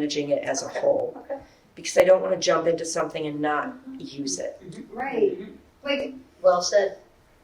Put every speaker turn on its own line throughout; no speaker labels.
managing it as a whole.
Okay.
Because I don't want to jump into something and not use it.
Right. Like,
Well said.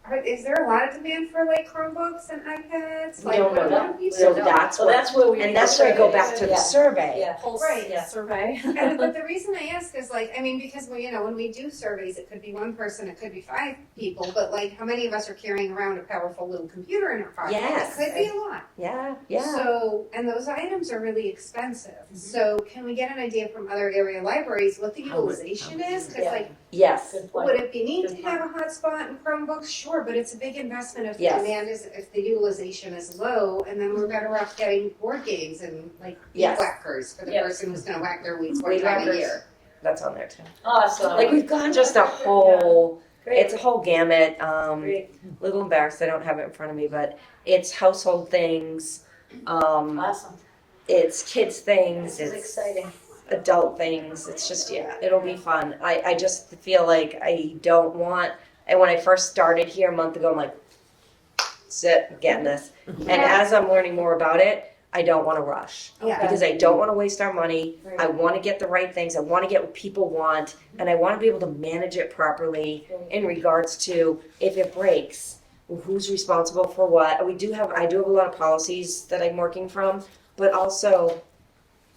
are, is there a lot of demand for like Chromebooks and iPads?
We
Like,
don't know
what
that.
would be
So
so-
that's
Well,
what,
that's where we.
and that's where I go back to the
Yeah.
survey.
Yeah. Pulse,
Right.
yeah.
survey.
And, but the reason I ask is like, I mean, because well, you know, when we do surveys, it could be one person, it could be five people, but like, how many of us are carrying around a powerful little computer in our pocket?
Yes.
It could be a lot.
Yeah, yeah. Mm-hmm.
So, and those items are really expensive. So, can we get an idea from other area libraries what the
How would-
utilization is? Because
Yeah.
like,
Yes,
Good
would
point.
it be neat to
Good
have a hotspot and Chromebooks? Sure, but it's a big investment if the
Yes.
demand is if the utilization is low, and then we're better off getting board games and like weed
Yes.
whackers for the
Yes.
person who's going to whack their weeds one
Weed
time a
whackers.
year.
that's on there too.
Awesome.
Like we've gone just a whole,
Great.
it's a whole gamut. Um,
Great.
little embarrassed I don't have it in front of me, but it's household things, um,
Awesome.
it's kids things,
This is
it's
exciting.
adult things. It's just yeah, it'll be fun. I I just feel like I don't want. And when I first started here a month ago, I'm like, sit, I'm getting this. And
Yeah.
as I'm learning more about it, I don't want to rush
Yeah.
because I don't want to waste our money.
Right.
I want to get the right things. I want to get what people want, and I want to be able to manage it properly in regards to if it breaks, who's responsible for what. We do have I do have a lot of policies that I'm working from, but also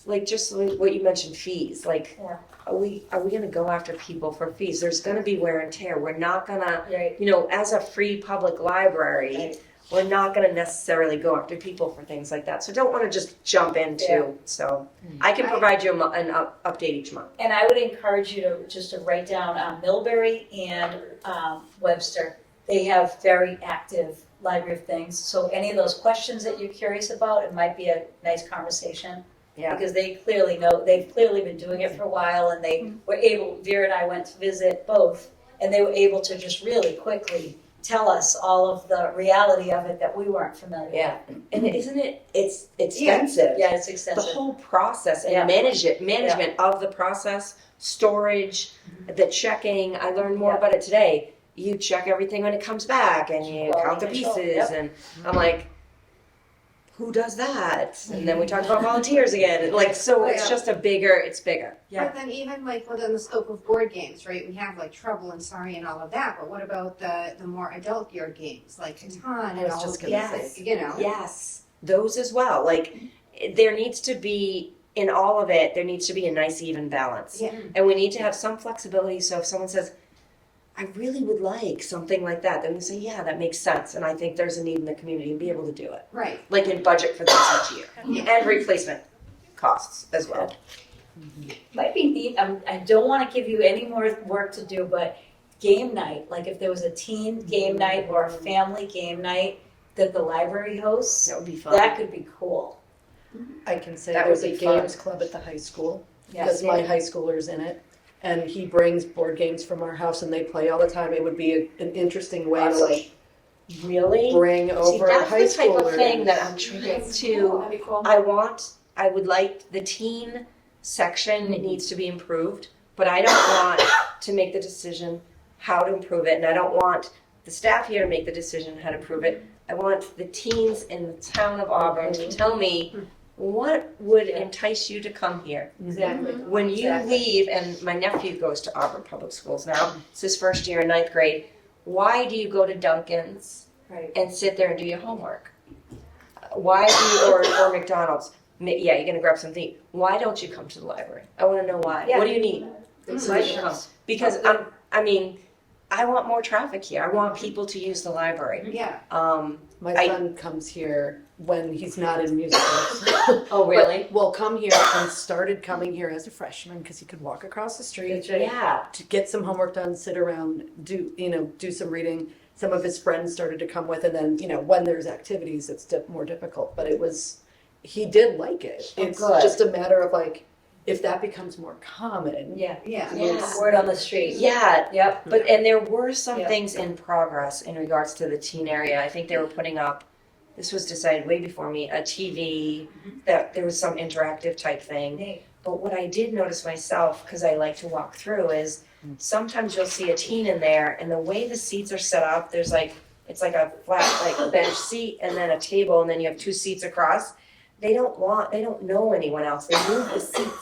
like just like what you mentioned fees. Like
Yeah.
are we are we going to go after people for fees? There's going to be wear and tear. We're not going to
Right.
you know, as a free public library,
Right.
we're not going to necessarily go after people for things like that. So don't want to just jump into.
Yeah.
So I can
I-
provide you a mo- an up, update each month.
And I would encourage you to just to write down um, Millbury and um, Webster. They have very active library of things. So any of those questions that you're curious about, it might be a nice conversation.
Yeah.
Because they clearly know, they've clearly been doing it for a while and they were able, Vera and I went to visit both. And they were able to just really quickly tell us all of the reality of it that we weren't familiar with.
Yeah, and isn't it? It's
Yeah.
expensive.
Yeah, it's
The
extensive.
whole process and
Yeah.
manage it, management of the process, storage, the checking. I learned more
Yeah.
about it today. You check everything when it comes back, and you
Quality
count the
control,
pieces.
yep.
And I'm like, who does that? And then we talk about volunteers again. Like, so it's
Yeah.
just a bigger. It's bigger.
But then even like within the scope of board games, right? We have like Trouble and Sorry and all of that, but what about the the more adult geared games like Catan
Mm. I
and
was
all
just
of
gonna
these?
say.
You know,
Yes, those as well. Like there needs to be in all of it, there needs to be a nice even balance.
Yeah.
And we need to have some flexibility so if someone says I really would like something like that, then we say, yeah, that makes sense and I think there's a need in the community and be able to do it.
right?
Like in budget for this each year. And replacement costs as well.
Might be neat. I'm, I don't want to give you any more work to do, but game night, like if there was a teen game night or a family game night that the library hosts,
That would be fun.
that could be cool.
I can say
That
there's
would
a
be fun.
games club at the high school
Yes.
because my high schooler's in it, and he brings board games from our house and they play all the time. It would be a, an interesting way to like
really?
bring
See,
over
that's
high
the type
schoolers.
of thing that I'm trying to
That'd be cool.
I want, I would like the teen section it needs to be improved, but I don't want to make the decision how to improve it, and I don't want the staff here to make the decision how to improve it. I want the teens in the town of Auburn to tell me what would
Yeah.
entice you to come here.
Exactly.
When you
Mm-hmm. Exactly.
leave, and my nephew goes to Auburn Public Schools now, it's his first year in ninth grade. Why do you go to Duncan's
Right.
and sit there and do your homework. Why do you, or, or McDonald's? Ma- Yeah, you're gonna grab something. Why don't you come to the library? I want to know why. What do you need?
Mm.
Why do you come? Because I'm, I mean, I want more traffic here. I want people to use the library.
Yeah.
Um,
My
I-
son comes here when he's not in music.
oh
But will come here and started coming here as a freshman because he could walk across the street
Yeah.
to get some homework done, sit around, do you know, do some reading. Some of his friends started to come with, and then you know, when there's activities, it's di- more difficult. But it was, he did like it.
Oh,
It's
good.
just a matter of like, if that becomes more common,
Yeah.
Yeah.
Yeah.
Word on the street.
Yeah.
Yep.
But and there were some
Yeah.
things in progress in regards to the teen area. I think they were putting up. This was decided way before me. A TV that there was some interactive type thing.
Neat.
But what I did notice myself, because I like to walk through, is sometimes you'll see a teen in there, and the way the seats are set up, there's like it's like a flat like bench seat and then a table, and then you have two seats across. they don't want, they don't know anyone else. They need the seats.